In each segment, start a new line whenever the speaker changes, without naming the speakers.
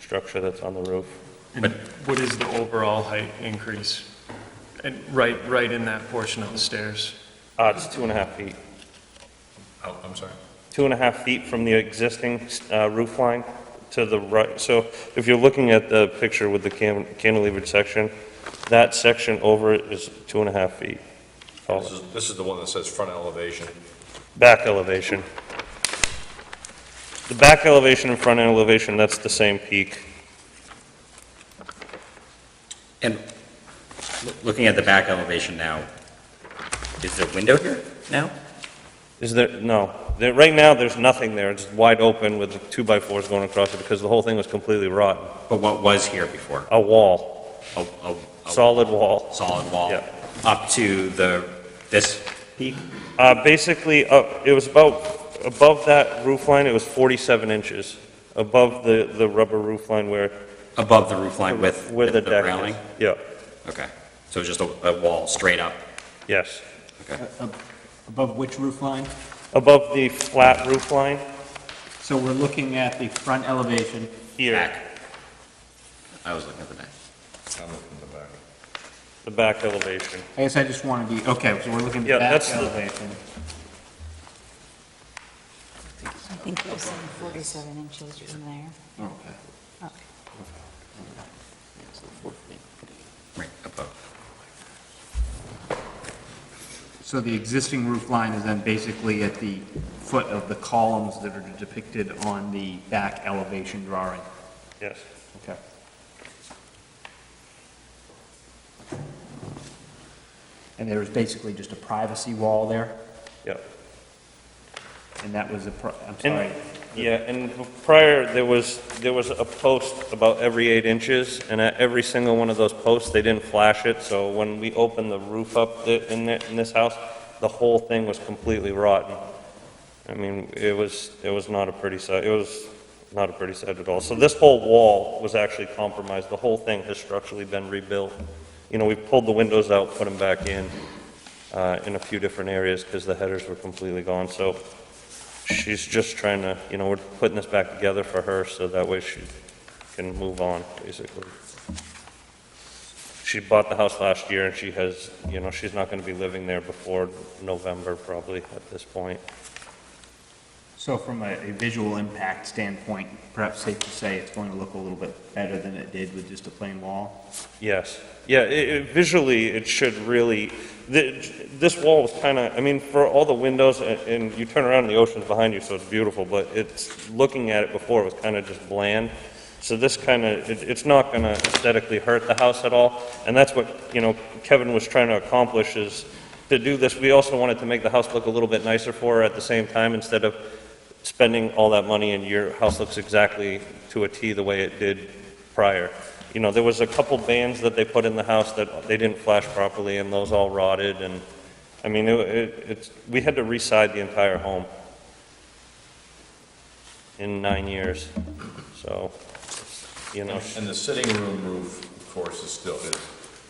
structure that's on the roof.
And what is the overall height increase? And right, right in that portion of the stairs?
Uh, it's two and a half feet.
Oh, I'm sorry.
two and a half feet from the existing uh, roof line to the right. So if you're looking at the picture with the can- cantilevered section, that section over it is two and a half feet tall.
This is, this is the one that says front elevation.
Back elevation. The back elevation and front elevation, that's the same peak.
And loo- looking at the back elevation now, is there a window here now?
Is there, no, there, right now, there's nothing there. It's wide open with the two-by-fours going across it because the whole thing was completely rotten.
But what was here before?
A wall,
A, a, a
solid wall.
solid wall?
Yeah.
Up to the, this peak?
Uh, Basically, up- it was about, above that roof line, it was 47 inches, above the, the rubber roof line where,
Above the roof line with,
where
with
the
the
deck is.
railing?
Yeah,
Okay, so just a, a wall straight up?
yes.
Okay.
uh, Above which roof line?
Above the flat roof line
So we're looking at the front elevation.
here,
Back. I was looking at the back.
I'm looking at the back.
the back elevation.
I guess I just want to be, okay, so we're looking
Yeah,
at that
that's the-
elevation.
I think you're saying 47 inches from there.
Okay.
Okay.
Right, above.
So the existing roof line is then basically at the foot of the columns that are depicted on the back elevation drawing.
Yes.
Okay. And there was basically just a privacy wall there,
Yeah.
and that was a, pri- I'm
And-
sorry.
Yeah, and prior, there was, there was a post about every eight inches, and at every single one of those posts, they didn't flash it, so when we opened the roof up thi- in, thi- in this house, the whole thing was completely rotten. I mean, it was, it was not a pretty sight, it was not a pretty sight at all. So this whole wall was actually compromised, the whole thing has structurally been rebuilt. You know, we pulled the windows out, put them back in, uh, in a few different areas, because the headers were completely gone, so she's just trying to, you know, we're putting this back together for her so that way she can move on, basically. She bought the house last year and she has, you know, she's not gonna be living there before November probably at this point.
So from a a visual impact standpoint, perhaps safe to say it's going to look a little bit better than it did with just a plain wall?
Yes, yeah, it, it, visually, it should really, th this wall was kinda, I mean, for all the windows and, and you turn around and the ocean's behind you, so it's beautiful, but it's, looking at it before, it was kinda just bland. So this kinda, it, it's not gonna aesthetically hurt the house at all, and that's what, you know, Kevin was trying to accomplish is to do this, we also wanted to make the house look a little bit nicer for her at the same time, instead of spending all that money and your house looks exactly to a T the way it did prior. You know, there was a couple bands that they put in the house that they didn't flash properly, and those all rotted, and, I mean, it, it- it's, we had to reside the entire home in nine years, so, you know.
And the sitting room roof, of course, is still, it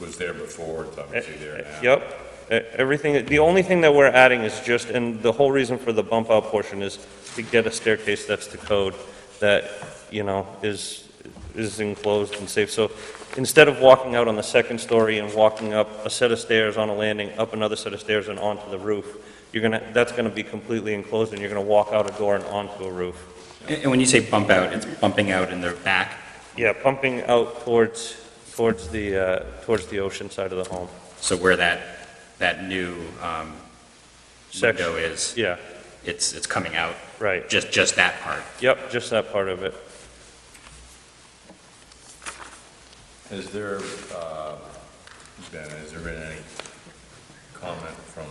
was there before, it's obviously there now.
Yep, e- everything, the only thing that we're adding is just, and the whole reason for the bump out portion is to get a staircase that's the code, that, you know, is, is enclosed and safe. So instead of walking out on the second story and walking up a set of stairs on a landing, up another set of stairs and onto the roof, you're gonna, that's gonna be completely enclosed and you're gonna walk out a door and onto a roof.
And, and when you say bump out, it's bumping out in the back?
Yeah, pumping out towards, towards the, uh, towards the ocean side of the home.
So where that, that new um,
Section.
window is,
Yeah,
it's, it's coming out,
right.
just, just that part?
Yep, just that part of it.
Has there, uh, Ben, has there been any comment from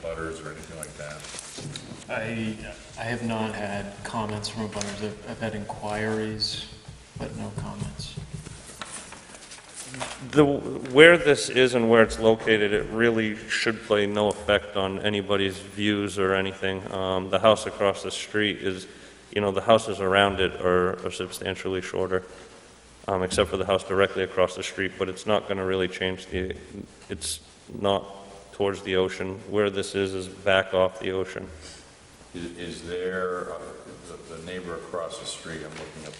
butters or anything like that?
I, I have not had comments from abutters. I've, I've had inquiries, but no comments.
The, where this is and where it's located, it really should play no effect on anybody's views or anything. Um, The house across the street is, you know, the houses around it are are substantially shorter, um, except for the house directly across the street, but it's not going to really change the, it's not towards the ocean. Where this is, is back off the ocean.
Is, is there, uh, the- the neighbor across the street, I'm looking at